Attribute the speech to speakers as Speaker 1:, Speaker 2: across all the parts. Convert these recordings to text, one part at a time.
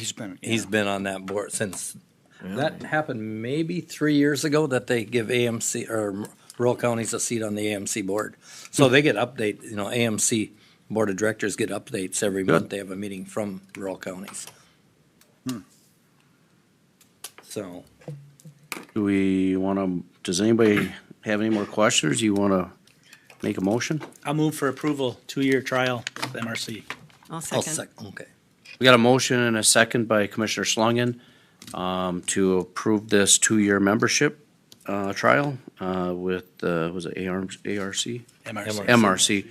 Speaker 1: He's been,
Speaker 2: He's been on that board since, that happened maybe three years ago that they give AMC or rural counties a seat on the AMC board. So they get update, you know, AMC Board of Directors get updates every month. They have a meeting from rural counties. So,
Speaker 3: Do we want to, does anybody have any more questions? Do you want to make a motion?
Speaker 4: I'll move for approval, two-year trial of MRC.
Speaker 5: I'll
Speaker 2: I'll
Speaker 5: second.
Speaker 2: sec, okay.
Speaker 3: We got a motion and a second by Commissioner Schlangen um, to approve this two-year membership uh, trial uh, with, uh, was it AR ARC?
Speaker 4: MRC.
Speaker 3: MRC.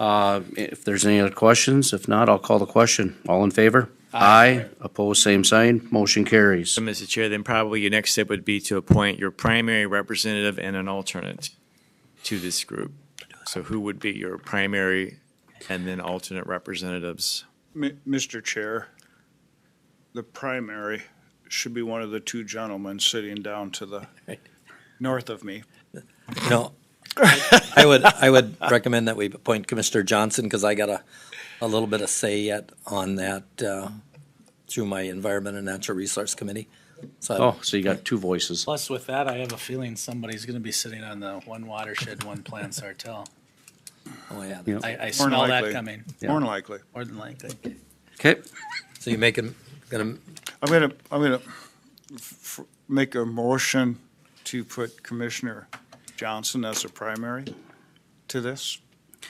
Speaker 3: Uh, If there's any other questions, if not, I'll call the question. All in favor? Aye. Opposed, same sign. Motion carries.
Speaker 6: So, Mr. Chair, then probably your next step would be to appoint your primary representative and an alternate to this group. So who would be your primary and then alternate representatives?
Speaker 1: Mi- Mr. Chair, the primary should be one of the two gentlemen sitting down to the north of me.
Speaker 2: No, I would, I would recommend that we appoint Commissioner Johnson because I got a, a little bit of say yet on that, uh, through my Environment and Natural Resource Committee. So I-
Speaker 3: Oh, so you got two voices.
Speaker 4: Plus, with that, I have a feeling somebody's gonna be sitting on the one watershed, one plan Sartell.
Speaker 2: Oh, yeah.
Speaker 3: Yep.
Speaker 4: I, I
Speaker 1: More than
Speaker 4: smell that
Speaker 1: likely.
Speaker 4: coming,
Speaker 1: More than likely.
Speaker 4: more than likely.
Speaker 3: Okay,
Speaker 2: So you make him, gonna,
Speaker 1: I'm gonna, I'm gonna f- f- make a motion to put Commissioner Johnson as a primary to this.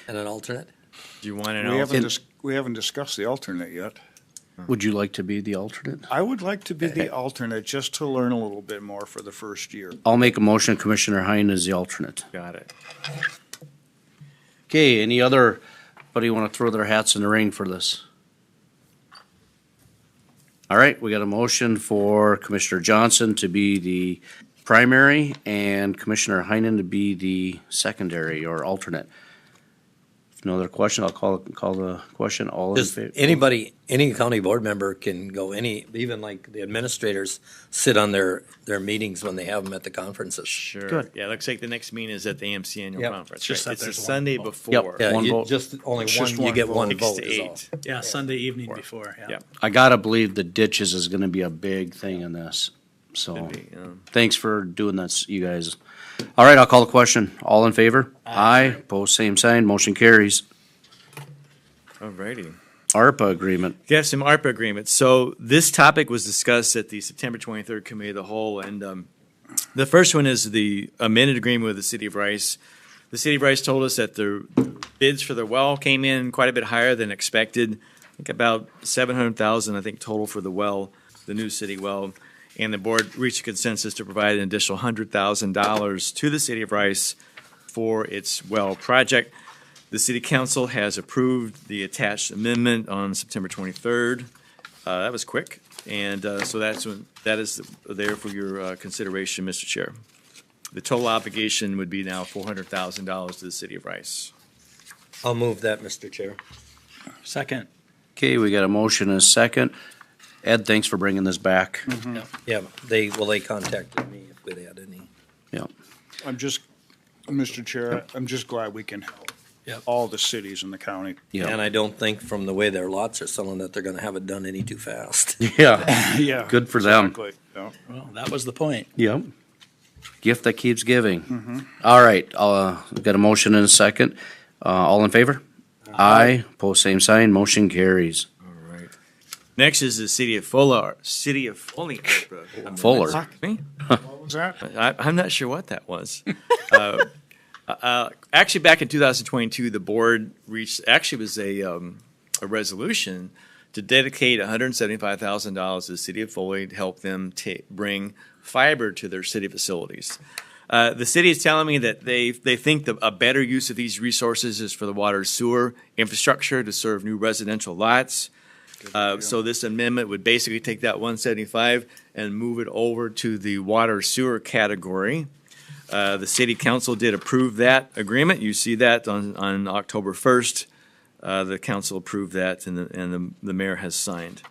Speaker 2: and an alternate?
Speaker 6: Do you want an
Speaker 1: We haven't,
Speaker 6: alternate?
Speaker 1: dis- we haven't discussed the alternate yet.
Speaker 3: would you like to be the alternate?
Speaker 1: I would like to be the alternate just to learn a little bit more for the first year.
Speaker 3: I'll make a motion Commissioner Hein is the alternate.
Speaker 6: Got it.
Speaker 3: Okay, any other, buddy want to throw their hats in the ring for this? All right, we got a motion for Commissioner Johnson to be the primary and Commissioner Heinen to be the secondary or alternate. If no other question, I'll call, call the question. All in
Speaker 2: Does
Speaker 3: favor?
Speaker 2: anybody, any county board member can go any, even like the administrators sit on their, their meetings when they have them at the conferences.
Speaker 6: Sure.
Speaker 3: Good.
Speaker 6: Yeah, it looks like the next meeting is at the AMC annual
Speaker 2: Yep.
Speaker 6: conference,
Speaker 4: Just that
Speaker 6: right? It's the
Speaker 4: there's one
Speaker 6: Sunday
Speaker 4: vote.
Speaker 6: before.
Speaker 2: Yeah,
Speaker 3: One
Speaker 2: you-
Speaker 3: vote.
Speaker 2: just only
Speaker 1: It's just
Speaker 2: one, you
Speaker 1: one
Speaker 2: get
Speaker 1: vote.
Speaker 2: one
Speaker 6: Six
Speaker 2: vote
Speaker 6: to
Speaker 2: is all.
Speaker 6: eight.
Speaker 4: Yeah, Sunday evening before, yeah.
Speaker 6: Yeah.
Speaker 3: I gotta believe the ditches is gonna be a big thing in this, so.
Speaker 6: Could be, um,
Speaker 3: Thanks for doing this, you guys. All right, I'll call the question. All in favor? Aye. Opposed, same sign. Motion carries.
Speaker 6: Alrighty.
Speaker 3: ARPA agreement.
Speaker 6: We have some ARPA agreements. So this topic was discussed at the September 23rd Committee of the Whole, and um, the first one is the amended agreement with the City of Rice. The City of Rice told us that the bids for the well came in quite a bit higher than expected. I think about 700,000, I think, total for the well, the new city well. And the board reached a consensus to provide an additional $100,000 to the City of Rice for its well project. The city council has approved the attached amendment on September 23rd. Uh, That was quick, and uh, so that's, when- that is there for your uh, consideration, Mr. Chair. The total obligation would be now $400,000 to the city of Rice.
Speaker 2: I'll move that, Mr. Chair.
Speaker 4: Second,
Speaker 3: Okay, we got a motion and a second. Ed, thanks for bringing this back.
Speaker 2: Yeah, they, well, they contacted me if they had any.
Speaker 3: Yeah.
Speaker 1: I'm just, Mr. Chair, I'm just glad we can help
Speaker 4: Yep.
Speaker 1: all the cities in the county.
Speaker 2: And I don't think from the way their lots are selling that they're gonna have it done any too fast.
Speaker 3: Yeah,
Speaker 1: Yeah.
Speaker 3: good um, for them.
Speaker 1: Exactly, yeah.
Speaker 4: well, that was the point.
Speaker 3: Yep. Gift that keeps giving. All right, uh, we got a motion and a second. Uh, all in favor? Aye. Opposed, same sign. Motion carries.
Speaker 6: All right. Next is the city of Fuller, city of Foley. ARPA.
Speaker 3: Fuller.
Speaker 6: Fuck Me?
Speaker 1: What was that?
Speaker 6: I, I'm not sure what that was. uh, uh, actually, back in 2022, the board reached actually it was a um, a resolution to dedicate $175,000 to the city of Foley to help them ta bring fiber to their city facilities. Uh, the city is telling me that they they think the, a better use of these resources is for the water and sewer infrastructure to serve new residential lots. Uh, So this amendment would basically take that one seventy-five and move it over to the water sewer category. Uh, The city council did approve that agreement. You see that on, on October first. Uh, The council approved that and, the- and the- the mayor has signed.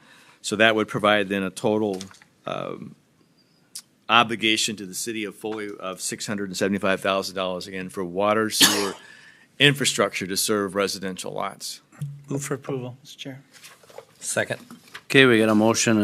Speaker 6: So that would provide then a total um, obligation to the city of Foley of six hundred and seventy-five thousand dollars again for water sewer infrastructure to serve residential lots.
Speaker 4: Move for approval, Mr. Chair.
Speaker 2: Second,
Speaker 3: Okay, we got a motion